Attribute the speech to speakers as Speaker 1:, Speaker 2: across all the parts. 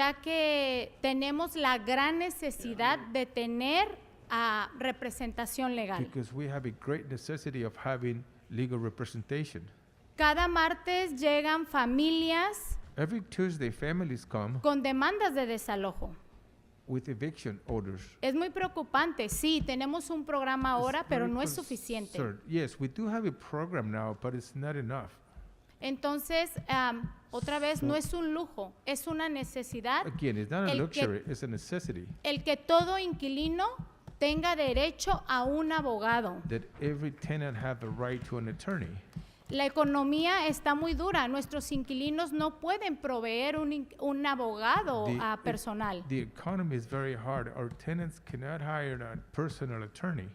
Speaker 1: ya que tenemos la gran necesidad de tener ah, representación legal.
Speaker 2: because we have a great necessity of having legal representation.
Speaker 1: Cada martes llegan familias
Speaker 2: Every Tuesday, families come
Speaker 1: con demandas de desalojo.
Speaker 2: with eviction orders.
Speaker 1: Es muy preocupante. Sí, tenemos un programa ahora,
Speaker 2: It's
Speaker 1: pero
Speaker 2: very
Speaker 1: no es suficiente.
Speaker 2: concerned. Yes, we do have a program now, but it's not enough.
Speaker 1: Entonces, am, otra vez, no es un lujo, es una necesidad
Speaker 2: Again, it's not a
Speaker 1: El que-
Speaker 2: luxury, it's a necessity
Speaker 1: el que todo inquilino tenga derecho a un abogado.
Speaker 2: that every tenant have the right to an attorney.
Speaker 1: La economía está muy dura. Nuestros inquilinos no pueden proveer un, in- un abogado
Speaker 2: The- e-,
Speaker 1: ah, personal.
Speaker 2: The economy is very hard. Our tenants cannot hire a personal attorney.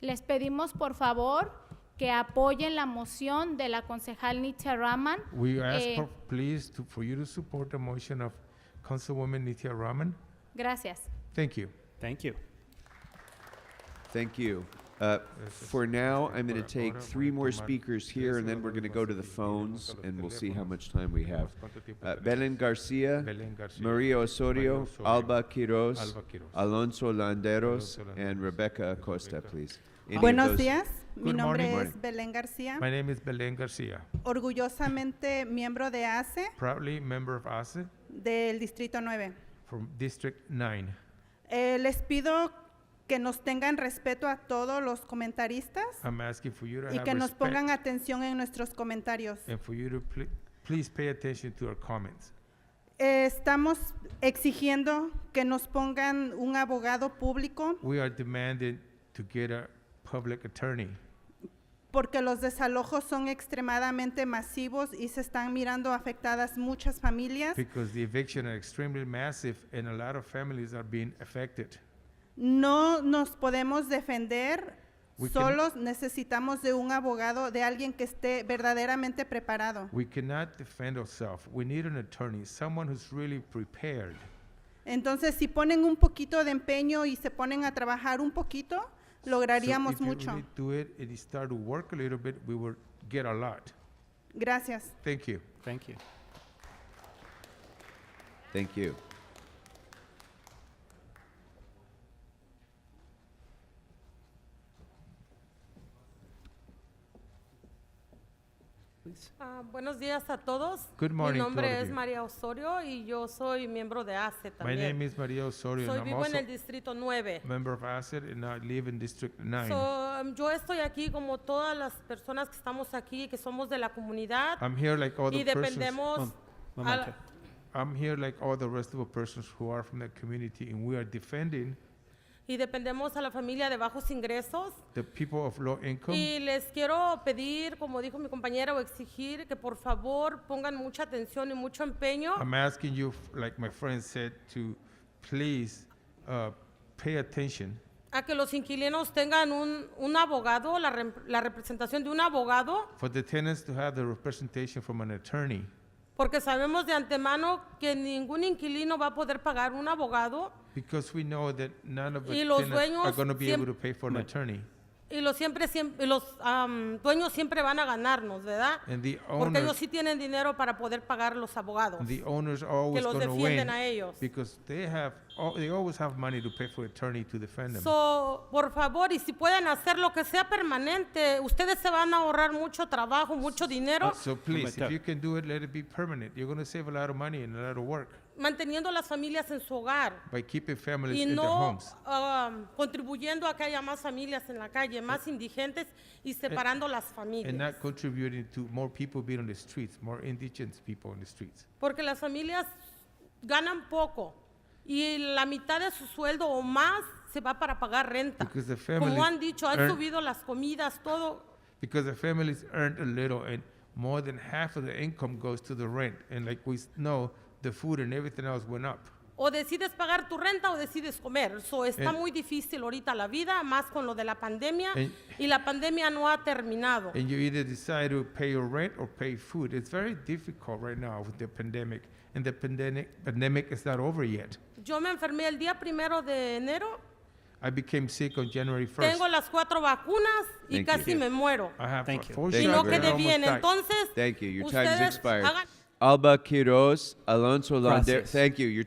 Speaker 1: Les pedimos, por favor, que apoyen la moción de la concejal Nietzsche Raman.
Speaker 2: We ask,
Speaker 1: Eh,
Speaker 2: for- please, to- for you to support the motion of Councilwoman Nithya Raman.
Speaker 1: Gracias.
Speaker 2: Thank you.
Speaker 3: Thank you.
Speaker 4: Thank you. Uh, For now, I'm going to take three more speakers here, and then we're going to go to the phones, and we'll see how much time we have. Uh, Belen Garcia,
Speaker 2: Belén García,
Speaker 4: Maria
Speaker 2: María
Speaker 4: Osorio,
Speaker 2: Osorio,
Speaker 4: Alba Quiroz,
Speaker 2: Alba Quiroz,
Speaker 4: Alonso Landeros,
Speaker 2: Alonso Landeros,
Speaker 4: and Rebecca Acosta, please. Any of
Speaker 5: Buenos
Speaker 4: those-
Speaker 5: días, mi
Speaker 2: Good
Speaker 5: nombre
Speaker 4: morning.
Speaker 5: es Belén García,
Speaker 2: My name is Belén Garcia,
Speaker 5: orgullosamente miembro de ACE
Speaker 2: proudly member of ASE
Speaker 5: del Distrito 9.
Speaker 2: from District 9.
Speaker 5: Eh, les pido que nos tengan respeto a todos los comentaristas
Speaker 2: I'm asking for
Speaker 4: Ah,
Speaker 2: you to
Speaker 5: y
Speaker 2: have
Speaker 5: que nos pongan
Speaker 2: respect
Speaker 5: atención en nuestros comentarios.
Speaker 2: and for you to pl- please pay attention to our comments.
Speaker 5: Eh, estamos exigiendo que nos pongan un abogado público
Speaker 2: We are demanding to get a public attorney
Speaker 5: porque los desalojos son extremadamente masivos y se están mirando afectadas muchas familias.
Speaker 2: because the eviction are extremely massive and a lot of families are being affected.
Speaker 5: No nos podemos defender
Speaker 2: We can-
Speaker 5: solos, necesitamos de un abogado, de alguien que esté verdaderamente preparado.
Speaker 2: We cannot defend ourselves. We need an attorney, someone who's really prepared.
Speaker 5: Entonces, si ponen un poquito de empeño y se ponen a trabajar un poquito,
Speaker 2: So
Speaker 5: lograríamos
Speaker 2: if you
Speaker 5: mucho.
Speaker 2: really do it and you start to work a little bit, we will get a lot.
Speaker 5: Gracias.
Speaker 2: Thank you.
Speaker 3: Thank you.
Speaker 4: Thank you.
Speaker 6: Ah, buenos días a todos.
Speaker 2: Good morning
Speaker 6: Mi
Speaker 2: to all
Speaker 6: nombre
Speaker 2: of
Speaker 6: es
Speaker 2: you.
Speaker 6: María Osorio y yo soy miembro de
Speaker 2: My
Speaker 6: ACE también.
Speaker 2: name is Maria Osorio
Speaker 6: soy
Speaker 2: and I'm
Speaker 6: vivo en
Speaker 2: also
Speaker 6: el distrito 9.
Speaker 2: member of ACID and I live in District 9.
Speaker 6: So, um, yo estoy aquí como todas las personas que estamos aquí, que somos de la comunidad
Speaker 2: I'm here like all the
Speaker 6: y
Speaker 2: persons.
Speaker 6: dependemos.
Speaker 3: Mom-
Speaker 6: a la-
Speaker 3: momento.
Speaker 2: I'm here like all the rest of the persons who are from the community and we are defending
Speaker 6: y dependemos a la familia de bajos ingresos.
Speaker 2: the people of low income.
Speaker 6: Y les quiero pedir, como dijo mi compañera, o exigir que por favor pongan mucha atención y mucho empeño.
Speaker 2: I'm asking you, f- like my friend said, to please uh, pay attention
Speaker 6: a que los inquilinos tengan un, un abogado, la, rem- la representación de un abogado,
Speaker 2: for the tenants to have the representation from an attorney
Speaker 6: porque sabemos de antemano que ningún inquilino va a poder pagar un abogado
Speaker 2: because we know that none of the
Speaker 6: Y los
Speaker 2: tenants are
Speaker 6: dueños
Speaker 2: going to be
Speaker 6: siem-
Speaker 2: able to pay for an attorney.
Speaker 6: y los, siempre, siem- y los am, dueños siempre van a ganarnos, ¿verdad?
Speaker 2: And the
Speaker 6: Porque ellos
Speaker 2: owners-
Speaker 6: sí tienen dinero para poder pagar los abogados.
Speaker 2: The owners are always
Speaker 6: los
Speaker 2: going to
Speaker 6: defienden
Speaker 2: win
Speaker 6: a ellos.
Speaker 2: because they have al- they always have money to pay for attorney to defend them.
Speaker 6: So, por favor, y si pueden hacer lo que sea permanente, ustedes se van a ahorrar mucho trabajo, mucho dinero,
Speaker 2: so please, if
Speaker 3: Momento.
Speaker 2: you can do it, let it be permanent. You're going to save a lot of money and a lot of work
Speaker 6: manteniendo las familias en su hogar.
Speaker 2: by keeping families
Speaker 6: y
Speaker 2: in their
Speaker 6: no
Speaker 2: homes
Speaker 6: um, contribuyendo a que haya más familias en la calle, más indigentes y separando las
Speaker 2: Eh, and
Speaker 6: familias.
Speaker 2: not contributing to more people being on the streets, more indigent people on the streets.
Speaker 6: Porque las familias ganan poco y la mitad de su sueldo o más se va para pagar renta.
Speaker 2: Because the families
Speaker 6: Como han dicho, han
Speaker 2: earn-
Speaker 6: subido las comidas, todo.
Speaker 2: Because the families earned a little and more than half of the income goes to the rent. And like we s- know, the food and everything else went up.
Speaker 6: O decides pagar tu renta o decides comer. So, está
Speaker 4: Eh.
Speaker 2: And-
Speaker 6: muy difícil ahorita la vida, más con lo de la pandemia.
Speaker 2: And-
Speaker 6: y la pandemia no ha terminado.
Speaker 4: Eh.
Speaker 2: And you either decide to pay your rent or pay food. It's very difficult right now with the pandemic. And the pandemic, pandemic is not over yet.
Speaker 6: Yo me enfermé el día primero de enero
Speaker 2: I became sick on January 1st.
Speaker 6: Tengo las cuatro vacunas y
Speaker 4: Thank
Speaker 6: casi
Speaker 4: you. Ah,
Speaker 6: me muero.
Speaker 2: I have
Speaker 3: Thank
Speaker 2: a
Speaker 3: you.
Speaker 2: four
Speaker 4: Thank
Speaker 6: Y
Speaker 4: you
Speaker 6: no
Speaker 2: shots
Speaker 4: very
Speaker 2: and I
Speaker 6: quedé
Speaker 4: much.
Speaker 2: almost
Speaker 6: bien.
Speaker 2: died.
Speaker 6: Entonces,
Speaker 4: Thank you. Your time has
Speaker 6: ustedes
Speaker 4: expired.
Speaker 6: hagan-
Speaker 4: Alba Quiroz, Alonso Lander.
Speaker 3: Gracias.
Speaker 4: Thank you. Your